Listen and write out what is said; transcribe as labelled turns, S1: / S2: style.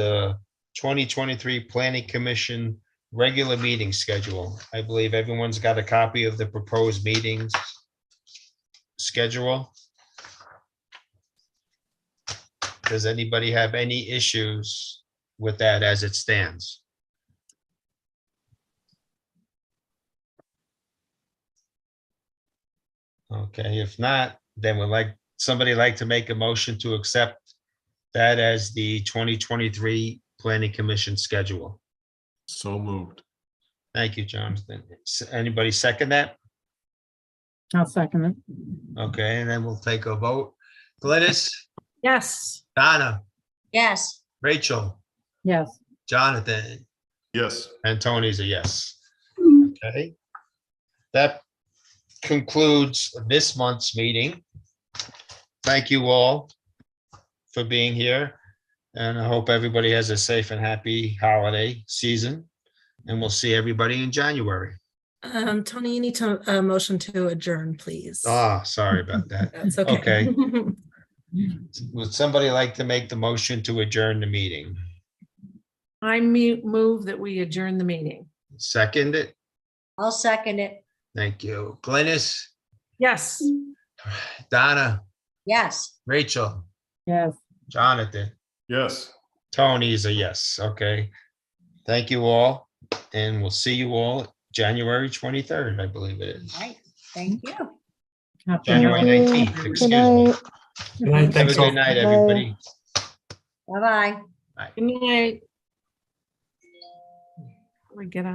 S1: the twenty twenty-three Planning Commission regular meeting schedule. I believe everyone's got a copy of the proposed meetings schedule. Does anybody have any issues with that as it stands? Okay, if not, then would like, somebody like to make a motion to accept that as the 2023 Planning Commission schedule.
S2: So moved.
S1: Thank you, Jonathan. S- Anybody second that?
S3: I'll second it.
S1: Okay, and then we'll take a vote. Glynis,
S4: Yes.
S1: Donna,
S4: Yes.
S1: Rachel,
S3: Yes,
S1: Jonathan,
S2: Yes,
S1: and Tony's a yes.
S5: Hmm.
S1: Okay. That concludes this month's meeting. Thank you all for being here. And I hope everybody has a safe and happy holiday season. And we'll see everybody in January.
S4: Um, Tony, you need to, uh, motion to adjourn, please.
S1: Ah, sorry about that.
S4: That's okay.
S1: Would somebody like to make the motion to adjourn the meeting?
S6: I mu- move that we adjourn the meeting.
S1: Second it?
S5: I'll second it.
S1: Thank you. Glynis,
S6: Yes.
S1: Donna,
S5: Yes.
S1: Rachel,
S3: yes.
S1: Jonathan.
S2: yes.
S1: Tony's a yes, okay. Thank you all, and we'll see you all January twenty-third, I believe it is.
S5: All right. Thank you.
S3: Happy
S1: January
S3: holidays.
S1: nineteenth, excuse me. Have a good night, everybody.
S5: Bye-bye.
S6: Good night. We get out.